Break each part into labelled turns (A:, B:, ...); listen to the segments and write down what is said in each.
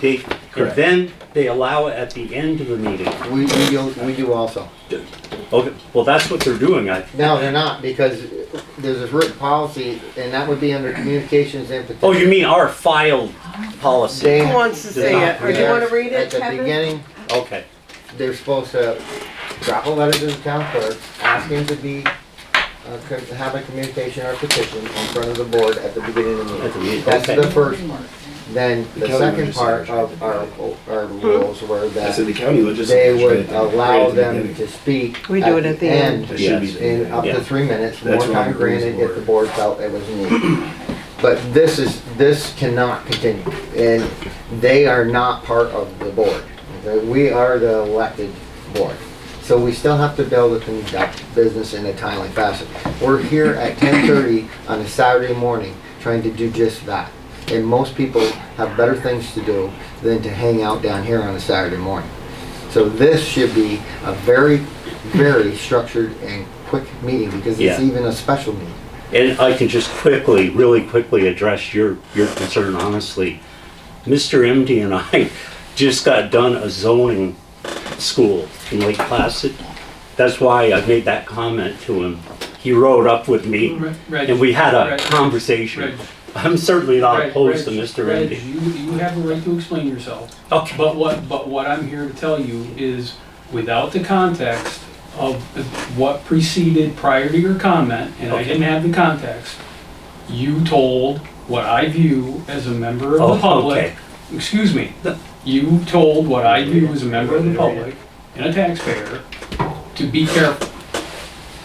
A: They, and
B: Correct.
A: then they allow it at the end of the meeting.
C: We, we do, we do also.
A: Okay, well, that's what they're doing, I,
C: No, they're not, because there's this written policy, and that would be under communications and.
A: oh, you mean our filed policy?
C: They-
D: Who wants to say it? Or do you want to read it,
C: At the
D: Kevin?
C: beginning,
A: Okay,
C: they're supposed to drop a letter to the town clerk, asking to be, uh, co- have a communication or petition in front of the board at the beginning of the
A: at the
C: meeting.
A: meeting,
C: That's the
A: okay.
C: first part. Then the
B: Kelly
C: second
B: was
C: part
B: just-
C: of our, our rules were
B: I said
C: that
B: the county legislature.
C: they would allow them to speak.
D: We do it at the end.
B: That should be.
A: Yes,
B: the
C: in up to
A: Yeah.
C: three minutes, more
B: That's what
C: time
B: the rules
C: granted if the
B: were.
C: board felt it was needed. But this is, this cannot continue, and they are not part of the board. Okay, We are the elected board. So we still have to be able to conduct business in a timely fashion. We're here at ten thirty on a Saturday morning trying to do just that. And most people have better things to do than to hang out down here on a Saturday morning. So this should be a very, very structured and quick meeting because
A: Yeah.
C: it's even a special meeting.
A: And I can just quickly, really quickly address your, your concern honestly. Mr. MD and I just got done a zoning school in Lake Placid. That's why I made that comment to him. He rode up with me
E: Reg- Reg,
A: and we had a
E: Reg,
A: conversation.
E: Reg,
A: I'm certainly not
E: Reg,
A: opposed to
E: Reg,
A: Mr.
E: Reg,
A: MD.
E: You, you have a right to explain yourself,
A: Okay,
E: but what, but what I'm here to tell you is, without the context of what preceded prior to your comment, and I
A: Okay.
E: didn't have the context, you told what I view as a member of
A: Oh,
E: the public,
A: okay.
E: excuse me,
A: No.
E: you told what I view as a member of the public and a taxpayer to be careful.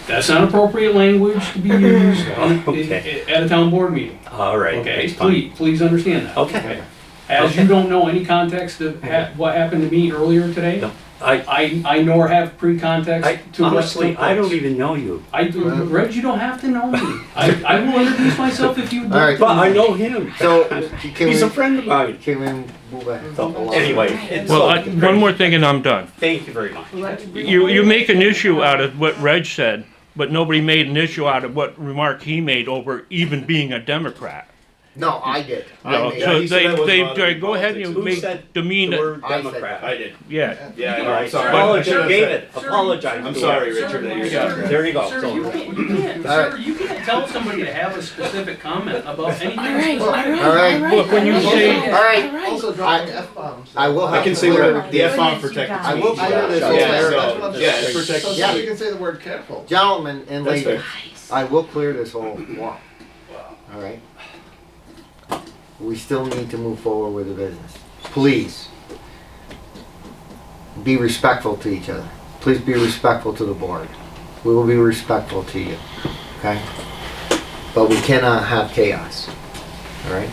E: That's not appropriate language to be used on- i-
A: Okay.
E: i- at a town board meeting.
A: all right.
E: Okay,
A: that's fine.
E: please, please understand that.
A: Okay.
E: As you
A: Okay.
E: don't know any context of ha- what happened to me earlier today,
A: No, I,
E: I, I nor have
A: I,
E: pre-context to what's
A: honestly,
E: took
A: I don't
E: place.
A: even know you.
E: I,
C: Uh,
E: Reg, you don't have to know me. I, I will introduce myself if you would
C: All
E: like
C: right.
E: to.
A: But I know him.
C: So can
A: He's a
C: we,
A: friend of mine.
C: can we move ahead?
A: So, Anyway. it's
F: Well, I,
A: all great.
F: one more thing and I'm done.
A: Thank you very much.
F: You, you make an issue out of what Reg said, but nobody made an issue out of what remark he made over even being a Democrat.
C: No, I did. I
F: No,
C: made
B: yeah,
F: so
B: he said
F: they,
B: that was
F: they,
B: bothering
F: they go ahead and
B: politics.
F: you
A: Who
F: make
A: said
F: demean
A: The
F: it,
A: word
C: I said
A: Democrat.
B: I did.
F: yeah.
B: Yeah, I know, I'm
A: Alright,
B: sorry.
A: apologize,
B: Should've
A: David,
B: said-
A: apologize.
B: I'm
A: to
B: sorry,
A: him.
B: Richard, that you're.
A: There you go.
E: Sir, you can't, you can't,
C: All right.
E: sir, you can't tell somebody to have a specific comment about anything.
C: All right.
F: Look, when you say,
C: All right.
G: Also
C: dropping
G: F-bombs.
C: I will
B: I
C: have
B: can
C: to
B: say
C: clear.
B: whatever, the F bomb protects
C: I
B: me.
C: will clear this whole
B: Yeah,
C: area.
B: so, yeah, it protects
C: Yeah.
B: me.
G: can say the word careful.
C: Gentlemen and
B: That's
C: ladies,
B: fair.
C: I will clear this whole wall. All right? We still need to move forward with the business. Please, be respectful to each other. Please be respectful to the board. We will be respectful to you, okay? But we cannot have chaos, all right?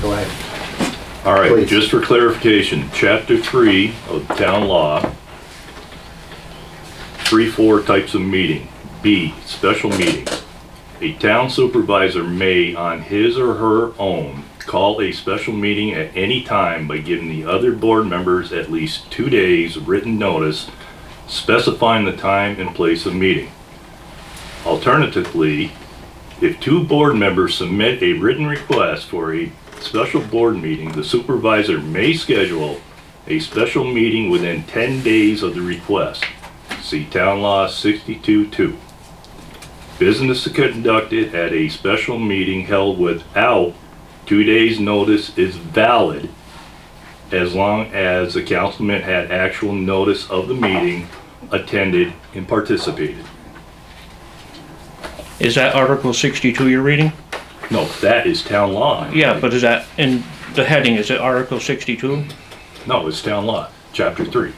C: Go ahead.
H: All right,
C: Please.
H: just for clarification, chapter three of town law, three, four types of meeting. B, special meetings. A town supervisor may, on his or her own, call a special meeting at any time by giving the other board members at least two days' written notice specifying the time and place of meeting. Alternatively, if two board members submit a written request for a special board meeting, the supervisor may schedule a special meeting within 10 days of the request. See Town Law 62-2. Business conducted at a special meeting held without two days' notice is valid as long as the councilman had actual notice of the meeting, attended, and participated.
F: is that Article sixty-two you're reading?
H: No, that is town law.
F: Yeah, but is that, in the heading, is it Article sixty-two?
H: No, it's town law, chapter three.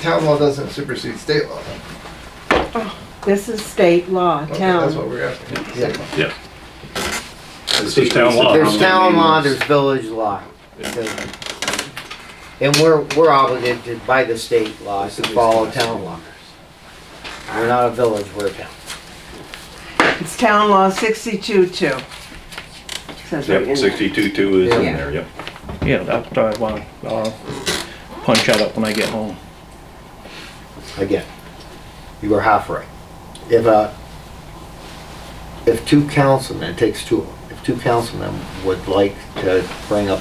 G: Town law doesn't supersede state law.
D: This is state law,
G: Okay,
D: town.
G: That's what we're asking.
H: Yeah. This is town law.
C: There's town law, there's village law. And we're, we're obligated by the state laws to follow town law. We're not a village, we're a town.
D: It's town law sixty-two two. Says right in
H: Yep,
D: there.
H: sixty-two two is in
D: Yeah.
H: there, yep.
F: Yeah, that's what I want, I'll punch that up when I get home.
C: Again, you were half right. If a, if two councilmen, it takes two, if two councilmen would like to bring up